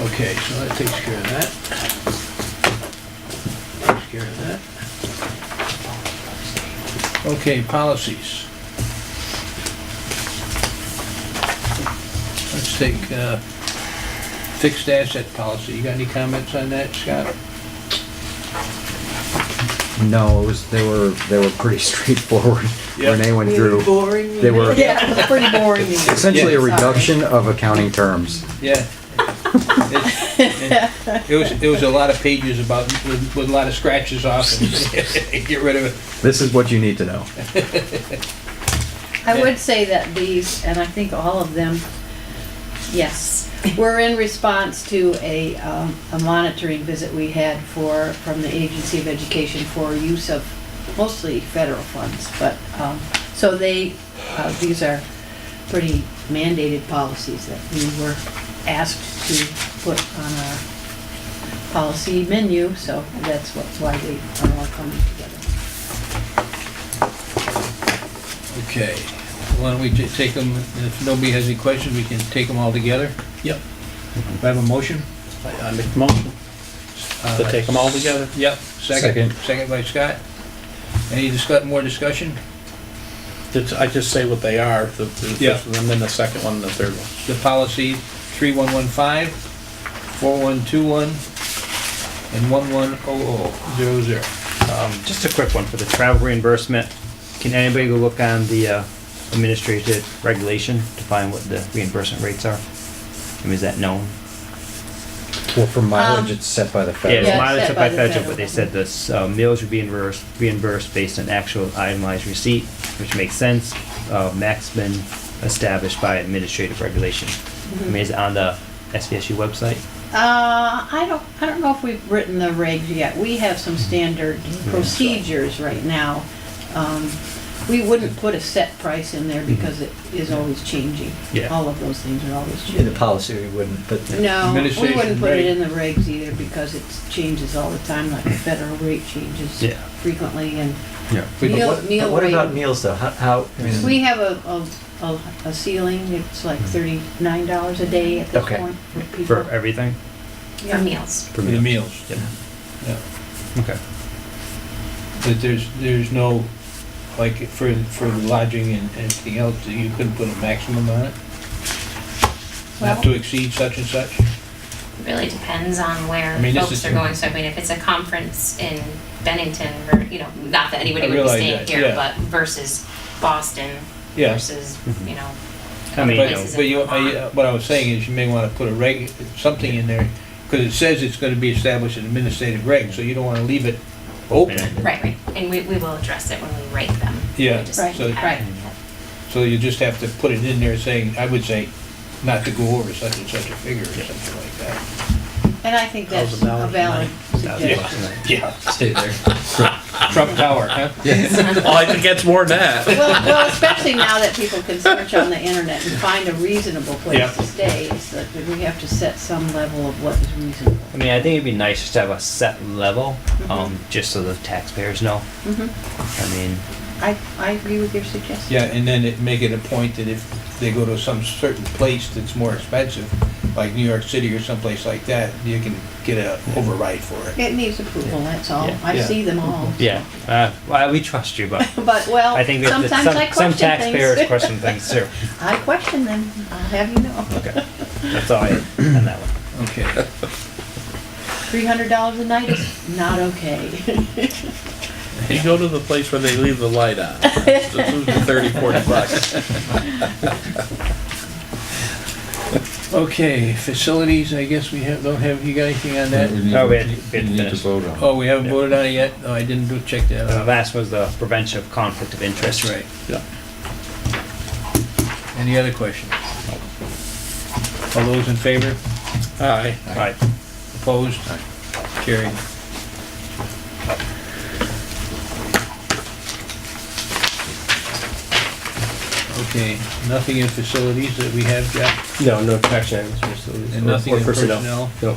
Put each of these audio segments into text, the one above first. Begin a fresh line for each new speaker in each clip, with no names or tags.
Okay, so that takes care of that. Takes care of that. Okay, policies. Let's take uh, fixed asset policy. You got any comments on that, Scott?
No, it was, they were, they were pretty straightforward.
Yeah.
Renee went
Really
through
boring.
They were-
Yeah, it was pretty boring.
essentially a
Sorry.
reduction of accounting terms.
Yeah. It's- It was, it was a lot of pages about, with with a lot of scratches off and get rid of it.
This is what you need to know.
I would say that these, and I think all of them, yes, were in response to a, um, a monitoring visit we had for, from the Agency of Education for use of mostly federal funds, but, um, so they, uh, these are pretty mandated policies that we were asked to put on our policy menu, so that's what's why they are all coming together.
Okay, why don't we ju- take them, if nobody has any questions, we can take them all together?
Yep.
Do I have a motion?
I I make the motion to take them all together.
Yep, second,
Second.
second by Scott. Any discuss, more discussion?
Did I just say what they are, the, the
Yeah.
first one, and then the second one, and the third one?
The policy 3115, 4121, and 110000.
Just a quick one for the travel reimbursement. Can anybody go look on the uh, administrative regulation to find what the reimbursement rates are? I mean, is that known?
Well, for mileage,
Um,
it's set by the
Yeah, it's
federal.
Yeah, it's
mileage
set
up
by
by
the
federal,
federal.
but they said this, uh, meals would be reimbursed, reimbursed based on actual itemized receipt, which makes sense. Uh, max been established by administrative regulation. I
Mm-hmm.
mean, is it on the SVSU website?
Uh, I don't, I don't know if we've written the regs yet. We have some standard
Mm-hmm.
procedures right now. Um, We wouldn't put a set price in there because it is always changing.
Yeah.
All of those things are always
Mm-hmm. In the
changing.
policy, we wouldn't, but the-
No, we
Administration
wouldn't put it
reg.
in the regs either because it changes all the time,
Mm-hmm.
like the federal rate changes
Yeah.
frequently and
Yeah.
but
meal,
what-
meal
but what about
rate.
meals though? How- How, I mean,
We have a, a- a, a ceiling, it's like thirty-nine dollars a day at this
Mm-hmm. Okay.
point for people.
For everything?
Yeah.
meals.
For the meals.
Yeah.
Yeah.
Okay.
But there's, there's no, like, for, for lodging and anything else, you couldn't put a maximum on it? Not to
Well-
exceed such and such?
It really depends on where
I mean, this
folks
is-
are going. So I mean, if it's a conference in Bennington, or, you know, not that anybody
I
would be
realize
staying
that,
here,
yeah.
but versus Boston
Yeah.
versus, you know,
I mean, you
But-
know,
But,
places
but
in
you, I-
Vermont.
what I was saying is you may wanna put a reg, something in there, cause it says it's gonna be established in administrative reg, so you don't wanna leave it open.
right, right. And we, we will address it when we rate them.
Yeah,
We just
so-
have-
Right.
So you just have to put it in there saying, I would say, not to go over such and such a figure or something like that.
And I think that's
Thousand dollars
a
a
valid suggestion.
Yeah.
stay there.
Trump Tower, huh?
Oh, I think that's more than that.
Well, well, especially now that people can search on the internet and find a reasonable
Yeah.
place to stay, it's that we have to set some level of what is reasonable.
I mean, I think it'd be nice just to have a set level, um, just so the taxpayers know.
Mhm.
I mean,
I, I agree with your suggestion.
Yeah, and then it, make it a point that if they go to some certain place that's more expensive, like New York City or someplace like that, you can get a override for it.
It needs approval, that's all.
Yeah.
I
Yeah.
see them all.
yeah, uh, well, we trust you, but
But, well,
I think that
sometimes
that some,
I
some
question
taxpayers
things.
question things too.
I question them, I'll have you know.
Okay, that's all I on that one.
Okay.
Three hundred dollars a night is not okay.
You go to the place where they leave the light on. It's usually Thirty, forty bucks.
Okay, facilities, I guess we have, don't have, you got anything on that?
Oh, we had, we had finished.
vote on.
Oh, we haven't voted on it yet? Oh, I didn't do, check that
The
out.
last was the prevention of conflict of interest.
That's right.
Yeah.
Any other questions? All those in favor?
Aye.
All right.
Opposed? Carried. Okay, nothing in facilities that we have, Jeff,
No, no tax items, Mr. Lewis.
and nothing in personnel.
No.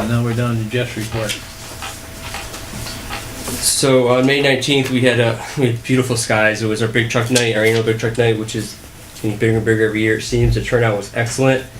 And now we're down to Jeff's report.
So on May 19th, we had a we had beautiful skies. It was our big truck night, our annual big truck night, which is getting bigger and bigger every year. It seems the turnout was excellent.